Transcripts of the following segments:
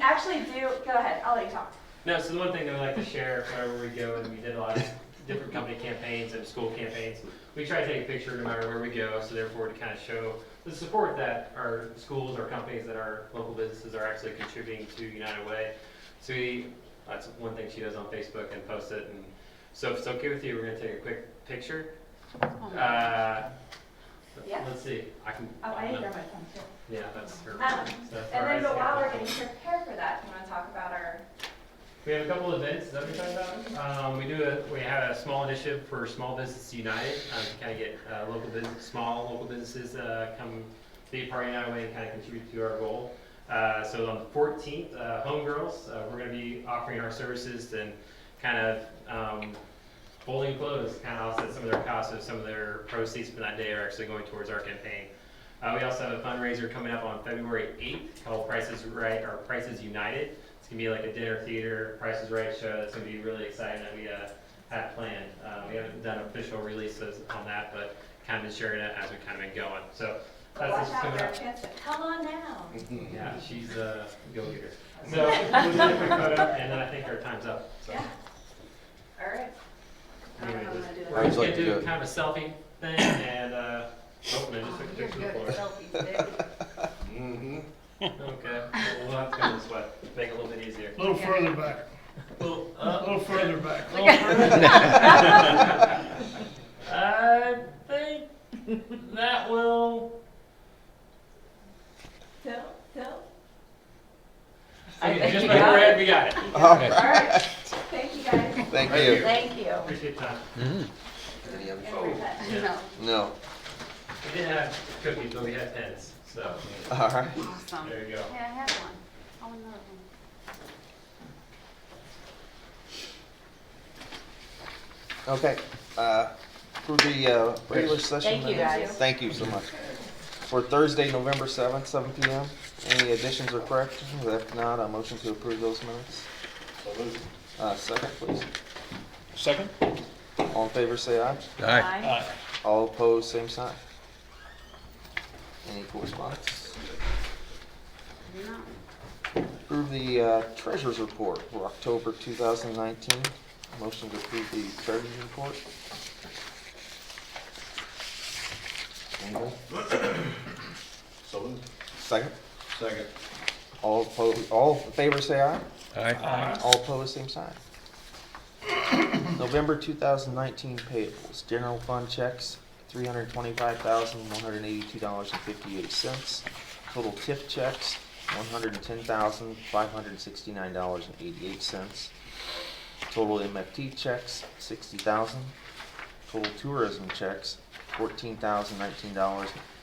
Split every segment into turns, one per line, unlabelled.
actually do, go ahead, I'll let you talk.
No, so the one thing that we like to share wherever we go, and we did a lot of different company campaigns and school campaigns, we try to take a picture no matter where we go, so therefore to kind of show the support that our schools, our companies, that our local businesses are actually contributing to United Way. So we, that's one thing she does on Facebook and posts it, and so if it's okay with you, we're gonna take a quick picture. Uh,
Oh. Yeah.
Let's see, I can.
Oh, I need to grab my phone too.
Yeah, that's her.
Um,
stuff.
And then, but
Alright,
while
so-
we're getting prepared for that, do you wanna talk about our,
We have a couple of events, is that what you're talking about? Um, we do a, we have a small initiative for Small Business United, um, to kind of get, uh, local business, small local businesses, uh, come be a part of United Way and kind of contribute to our goal. Uh, so on the fourteenth, uh, Homegirls, uh, we're gonna be offering our services and kind of, um, folding clothes, kind of offset some of their costs, so some of their proceeds from that day are actually going towards our campaign. Uh, we also have a fundraiser coming up on February eighth called Prices Right, or Prices United. It's gonna be like a dinner theater, Price is Right show, that's gonna be really exciting that we, uh, have planned. Uh, we haven't done official releases on that, but kind of been sharing it as we kind of been going, so.
but
that's
watch
what's
out
coming
for
up.
our chance to, come on now.
Yeah, she's uh, a go-getter. So, we'll do a quick photo, and then I think our time's up. So,
Yeah. All right. I don't know how I'm gonna do
We're
that.
just gonna
I'd like
do
to-
kind of a selfie thing, and, uh, oh, and I just took a picture
You're
of
good
the
at
floor.
selfies, Dick.
Mm-hmm.
Okay, well, we'll have to go this way, make it a little bit easier.
A little further back,
Well,
a
uh,
little further back.
I think that will.
Till, till.
I think
just
you
like
got
Brad, we got it.
All
All
right,
right, thank you guys.
thank
Right
you.
here.
Thank you.
Appreciate your time.
Any other-
And
Oh.
reset.
No,
No,
We didn't have cookies, but we had pens, so
all right.
awesome.
there you go.
Hey, I have one. Oh, another one.
Okay, uh, for the uh, regular session
Thank you,
minutes-
guys.
Thank you so much. For Thursday, November 7th, 7 PM, any additions or corrections? If not, a motion to approve those minutes. Uh, Second, please.
Second?
All in favor, say aye.
Aye.
Bye.
All opposed, same sign. Any correspondence?
No.
Approve the uh, treasurer's report for October 2019. Motion to approve the treasurer's report. Anybody?
So moved.
Second.
Second.
All opposed, all in favor say aye.
Aye.
All opposed, same sign. November 2019 payables, general fund checks, $325,182.58. Total TIF checks, $110,569.88. Total MFT checks, 60000 Total tourism checks,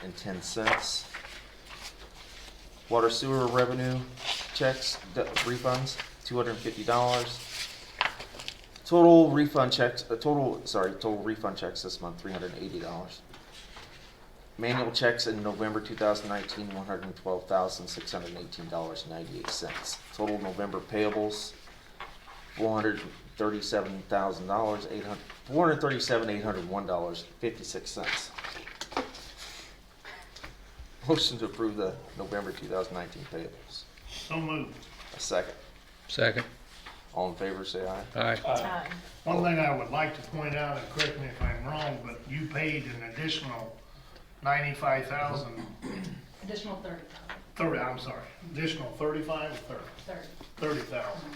$14,019.10. Water sewer revenue checks, d- refunds, two hundred and fifty dollars. Total refund checks, uh, total, sorry, total refund checks this month, three hundred and eighty dollars. Manual checks in November 2019, one hundred and twelve thousand, six hundred and eighteen dollars, ninety-eight cents. Total November payables, four hundred and thirty-seven thousand dollars, eight hundred, four hundred and thirty-seven, eight hundred and one dollars, fifty-six cents. Motion to approve the November 2019 payables.
So moved.
A second.
Second.
All in favor, say aye.
Aye.
One thing I would like to point out, and correct me if I'm wrong, but you paid an additional ninety-five thousand,
Additional thirty,
thirty, I'm sorry, additional thirty-five, thirty,
thirty.
thirty thousand.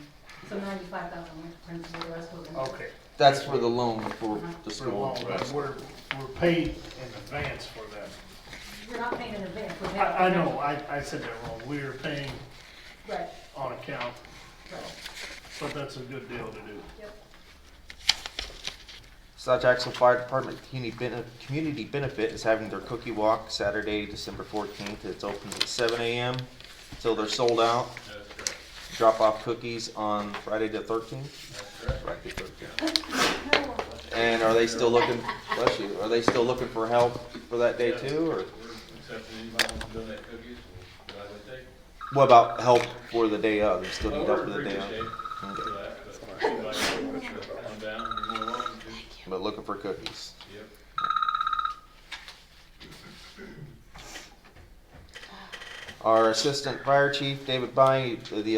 So ninety-five thousand went to principal, the rest was in.
Okay.
That's for the loan for the
For the
school.
loan, but we're, we're paid in advance for that.
We're not paying in advance, we're paying.
I, I know, I, I said that wrong. We're paying
Right,
on account,
right.
but that's a good deal to do.
South Jackson Fire Department Community Bene- Community Benefit is having their cookie walk Saturday, December 14th. It's open at 7 a.m. till they're sold out.
That's correct.
Drop off cookies on Friday the 13th.
That's correct.
Friday the 13th. And are they still looking, bless you, are they still looking for help for that day too? Or
We're accepting anybody who wants to donate cookies, we'll gladly take.
what about help for the day of? They still
Oh,
need
we're
help
in
for the
pretty
day
good shape
of?
for that, but if anybody wants to come down, you're more than welcome to.
But looking for cookies.
Yep.
Our Assistant Fire Chief David Bynum, the